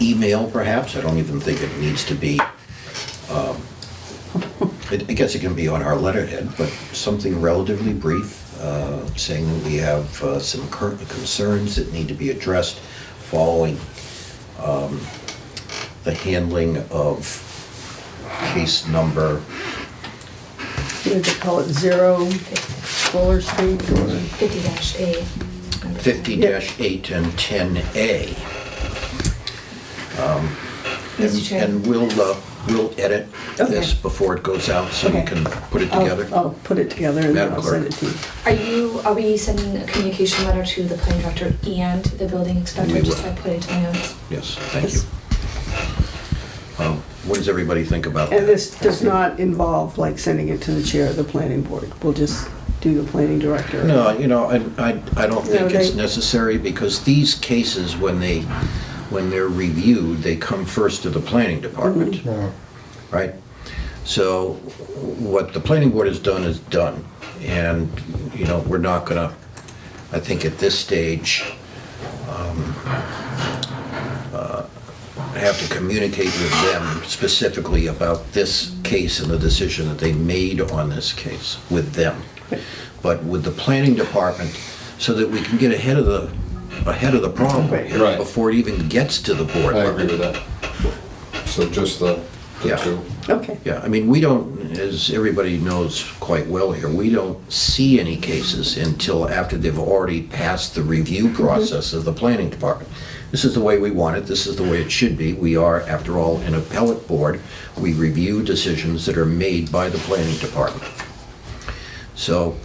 email perhaps. I don't even think it needs to be, um, it- I guess it can be on our letterhead, but something relatively brief, uh, saying that we have uh, some current concerns that need to be addressed following um, the handling of case number, What did they call it, Zero Fuller Street? or- 50-8. 50-8 and 10A. Um, and- Mr. Chair. And we'll, uh, we'll edit this Okay. before it goes out, so you Okay. can put it I'll- together. I'll put it together and then Madam I'll Clerk. send it to you. Are you, are we sending a communication letter to the planning director and the building inspector, We just will. so I put it in my notes? Yes, thank you. Yes. Um, What does everybody think about that? And this does not involve like sending it to the chair of the planning board. We'll just do the planning director. No, you know, I, I, I don't No, think it's they- necessary, because these cases, when they, when they're reviewed, they come first to the planning Mm-hmm. department, Yeah. right? So what the planning board has done is done, and, you know, we're not gonna, I think at this stage, um, uh, have to communicate with them specifically about this case and the decision that they made on this case with them. But with the planning department, so that we can get ahead of the, ahead of the problem here Right. before it even gets to the board. I agree with that. So just the, Yeah. the two. Okay. Yeah, I mean, we don't, as everybody knows quite well here, we don't see any cases until after they've already passed the review process of the planning department. This is the way we want it, this is the way it should be. We are, after all, an appellate board. We review decisions that are made by the planning department. So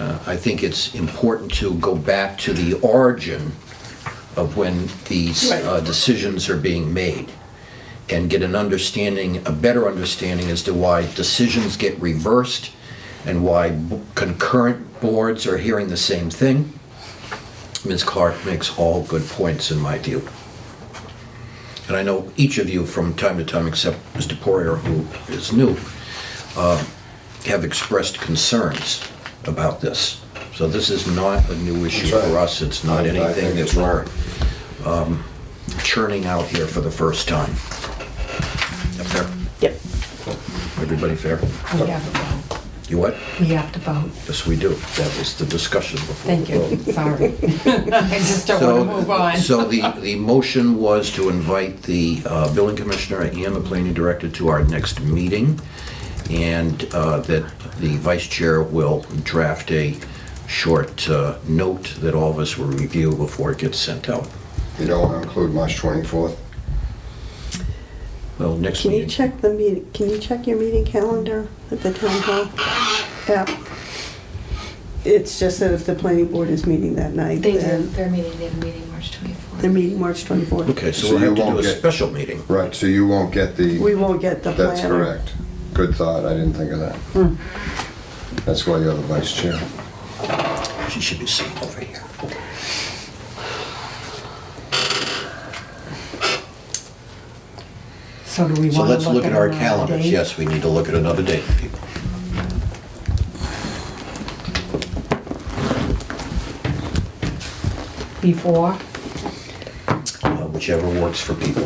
uh, I think it's important to go back to the origin of when these Right. uh, decisions are being made and get an understanding, a better understanding as to why decisions get reversed and why b- concurrent boards are hearing the same thing. Ms. Clark makes all good points in my view. And I know each of you from time to time, except Mr. Poirier, who is new, uh, have expressed concerns about this. So this is not a new issue That's right. for us, it's not I- I anything think that it's we're wrong. um, churning out here for the first time. Fair? Yep. Everybody fair? We have to vote. You what? We have to vote. Yes, we do. That was the discussion before. Thank the you, vote. sorry. I just don't want to move on. So the, the motion was to invite the uh, building commissioner and the planning director to our next meeting, and uh, that the vice chair will draft a short uh, note that all of us will review before it gets sent out. You don't want to include March 24th? Well, next Can you meeting. check the meeting, can you check your meeting calendar at the town hall app? It's just that if the planning board is meeting that night, They do, then their meeting, they have a meeting March 24th. they're meeting March 24th. Okay, so So we'll have you to do won't a get- special meeting. Right, so you won't get We the, won't get the planner. that's correct. Good thought, I didn't think of Hmm. that. That's why you're the vice chair. She should be sitting over here. So do we So want let's to look at our another calendars. date? Yes, we need to look at another date, people. Before? Uh, whichever works for people.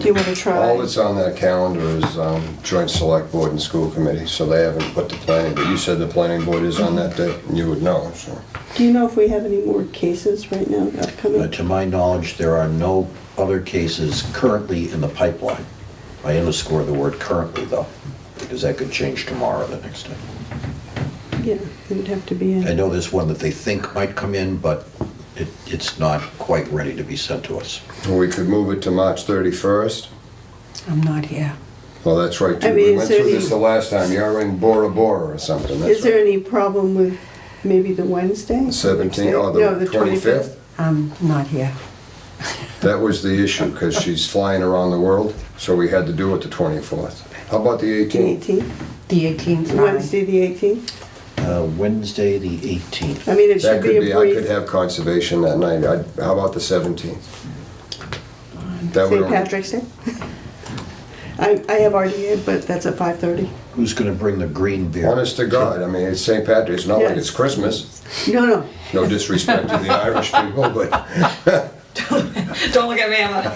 Do you want to try? All that's on that calendar is um, joint select board and school committee, so they haven't put the planning, but you said the planning board is on that day, and you would know, so. Do you know if we have any more cases right now Uh, upcoming? To my knowledge, there are no other cases currently in the pipeline. I underscore the word currently, though, because that could change tomorrow or the next day. Yeah, it would have to be I in. know there's one that they think might come in, but it, it's not quite ready to be sent to us. We could move it to March 31st. I'm not here. Well, that's right, I too. mean, We is went there through any- this the last time. You're in Bora Bora or something, that's Is there right. any problem with maybe the Wednesday? 17, or No, oh, the 25th? I'm not here. That was the issue, because she's flying around the world, so we had to do it the 24th. How about the The 18th? 18th, The 18th, fine. Wednesday, the 18th? Uh, Wednesday, the 18th. I mean, it That should be could a be, I could brief have conservation that night. I'd- How about the 17th? That would St. only- Patrick's Day. I, I have RDA, but that's at 5:30. Who's going to bring the green beer? Honest to God, I mean, it's St. Patrick's, it's not like Yes. it's Christmas. No, no, No disrespect to the Irish people, but... Don't look at me,